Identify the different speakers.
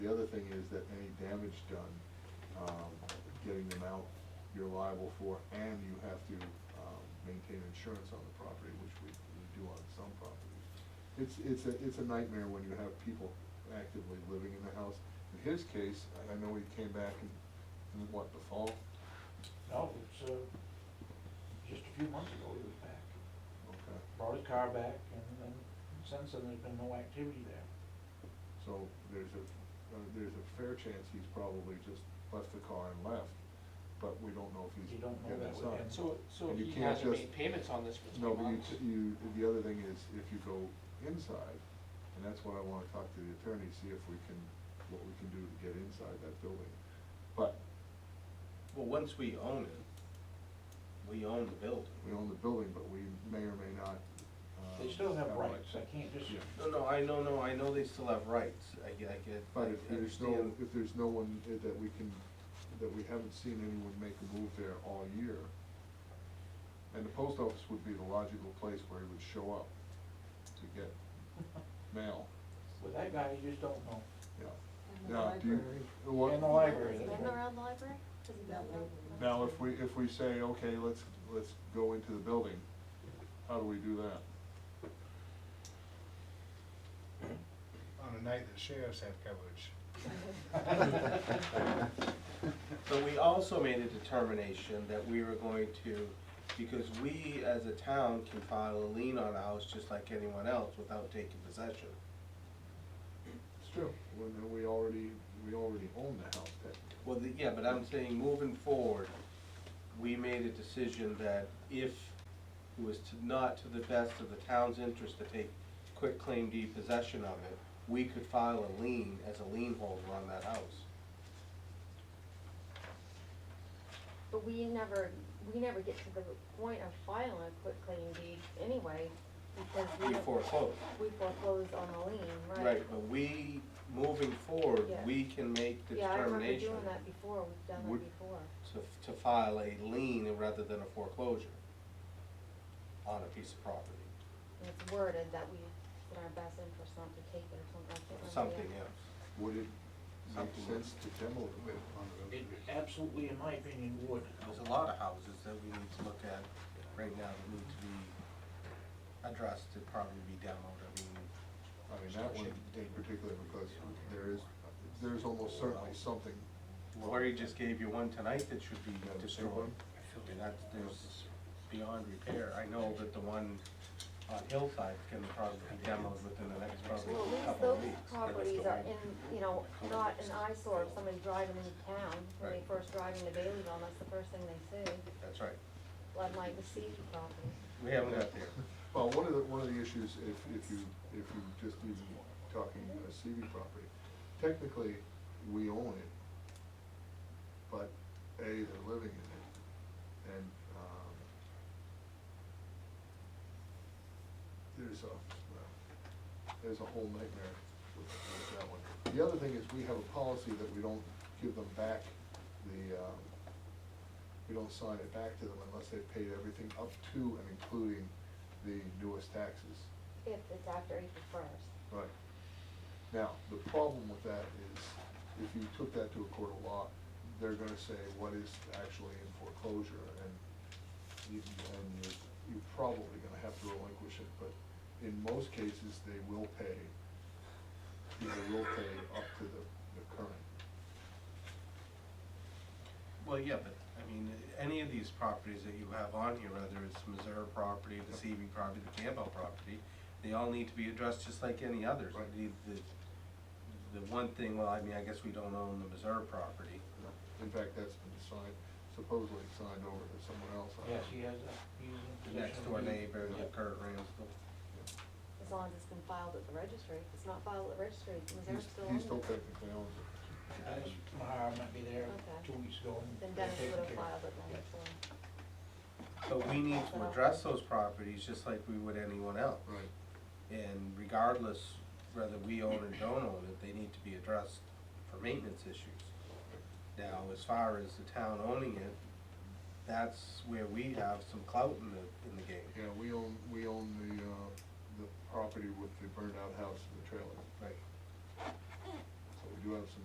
Speaker 1: The other thing is that any damage done, um, getting them out, you're liable for, and you have to, um, maintain insurance on the property, which we, we do on some properties. It's, it's a, it's a nightmare when you have people actively living in the house. In his case, I I know he came back in, in what, the fall?
Speaker 2: No, it's, uh, just a few months ago he was back.
Speaker 1: Okay,
Speaker 2: Brought his car back and then since then there's been no activity there.
Speaker 1: so there's a, uh, there's a fair chance he's probably just left the car and left, but we don't know if he's.
Speaker 2: You don't know
Speaker 1: get
Speaker 2: that with
Speaker 1: inside.
Speaker 2: him.
Speaker 3: So, so
Speaker 1: And you
Speaker 3: he
Speaker 1: can't
Speaker 3: hasn't
Speaker 1: just-
Speaker 3: made payments on this for
Speaker 1: No,
Speaker 3: three
Speaker 1: but you,
Speaker 3: months?
Speaker 1: you, the other thing is, if you go inside, and that's what I wanna talk to the attorney, see if we can, what we can do to get inside that building. But
Speaker 4: Well, once we own it, we own the building.
Speaker 1: we own the building, but we may or may not. uh,
Speaker 2: They still have
Speaker 1: rights.
Speaker 2: rights, I can't just,
Speaker 1: Yeah.
Speaker 4: No, no, I know, no, I know they still have rights, I get, I get, I
Speaker 1: But if there's no,
Speaker 4: understand.
Speaker 1: if there's no one that we can, that we haven't seen anyone make a move there all year, and the post office would be the logical place where he would show up to get mail,
Speaker 2: with that guy, you just don't know.
Speaker 1: yeah.
Speaker 5: And the
Speaker 1: Now, do you-
Speaker 5: library.
Speaker 1: what-
Speaker 2: And the library,
Speaker 5: Is
Speaker 2: that's
Speaker 5: Ben
Speaker 2: right.
Speaker 5: around the library? Does he
Speaker 6: No.
Speaker 5: know?
Speaker 1: Now, if we, if we say, okay, let's, let's go into the building, how do we do that?
Speaker 7: on a night that sheriffs have coverage.
Speaker 4: But we also made a determination that we were going to, because we as a town can file a lien on a house just like anyone else without taking possession.
Speaker 1: It's true. When we already, we already own the house technically.
Speaker 4: Well, the- yeah, but I'm saying moving forward, we made a decision that if it was to, not to the best of the town's interest to take quick claim deed possession of it, we could file a lien as a lien holder on that house.
Speaker 6: But we never, we never get to the point of filing a quit claim deed anyway, because we,
Speaker 4: We foreclose.
Speaker 6: we foreclose on a lien, right?
Speaker 4: Right, but we, moving forward,
Speaker 6: Yeah.
Speaker 4: we can make the
Speaker 6: Yeah, I remember
Speaker 4: determination
Speaker 6: doing that before, we've done
Speaker 1: Would-
Speaker 6: that before.
Speaker 4: to, to file a lien rather than a foreclosure on a piece of property,
Speaker 6: And it's worded that we, it's in our best interest not to take it or something, I can't remember. the
Speaker 4: something
Speaker 6: actual-
Speaker 4: else.
Speaker 1: Would it make
Speaker 4: Something.
Speaker 1: sense to demo the building?
Speaker 2: It absolutely, in my opinion, would.
Speaker 4: There's a lot of houses that we need to look at right now that need to be addressed, to probably be demoed, I mean.
Speaker 1: I mean, that one in particular, because there is, there's almost certainly something.
Speaker 4: Lori just gave you one tonight that should be
Speaker 1: Yeah, the same
Speaker 4: destroyed,
Speaker 1: one?
Speaker 4: and that's, there's beyond repair, I know that the one on Hillside can probably be demoed within the next probably
Speaker 6: Well, at least
Speaker 4: couple of
Speaker 6: those
Speaker 4: weeks.
Speaker 6: properties are in, you know, not an eyesore of somebody driving into town, when they
Speaker 4: Right.
Speaker 6: first drive into Baileyville, that's the first thing they see,
Speaker 4: That's right,
Speaker 6: like, like the sea property.
Speaker 4: we haven't got there.
Speaker 1: Well, one of the, one of the issues, if, if you, if you just even talking a CV property, technically, we own it, but A, they're living in it, and, um, there's a, well, there's a whole nightmare with, with that one. The other thing is, we have a policy that we don't give them back the, um, we don't sign it back to them unless they've paid everything up to and including the newest taxes.
Speaker 6: If it's after April first.
Speaker 1: Right. Now, the problem with that is, if you took that to a court of law, they're gonna say, what is actually in foreclosure? And you, and you're, you're probably gonna have to relinquish it, but in most cases, they will pay, they will pay up to the, the current.
Speaker 4: Well, yeah, but, I mean, any of these properties that you have on here, whether it's Missouri property, the CB property, the Campbell property, they all need to be addressed just like any others.
Speaker 1: Right.
Speaker 4: The, the- the one thing, well, I mean, I guess we don't own the Missouri property.
Speaker 1: In fact, that's been signed, supposedly signed over to someone else. I-
Speaker 2: Yes, he has a, he's in possession.
Speaker 4: The next door
Speaker 2: of the-
Speaker 4: neighbor,
Speaker 2: Yeah.
Speaker 4: like Kurt Ramsdell.
Speaker 6: As long as it's been filed at the registry. If it's not filed at the registry, Missouri
Speaker 1: He's-
Speaker 6: still
Speaker 1: He
Speaker 6: owns
Speaker 1: still
Speaker 6: it.
Speaker 1: technically owns it.
Speaker 2: Dennis Mahar might be there
Speaker 6: Okay.
Speaker 2: two weeks ago. and
Speaker 6: Then
Speaker 2: they're
Speaker 6: Dennis
Speaker 2: taking care
Speaker 6: would have
Speaker 2: of
Speaker 6: filed it
Speaker 2: Yeah.
Speaker 6: then, so.
Speaker 4: But we need to address those properties just like we would anyone else.
Speaker 1: Right.
Speaker 4: And regardless whether we own or don't own it, they need to be addressed for maintenance issues. Now, as far as the town owning it, that's where we have some clout in the, in the game.
Speaker 1: Yeah, we own, we own the, uh, the property with the burned out house and the trailer,
Speaker 4: Right.
Speaker 1: so we do have some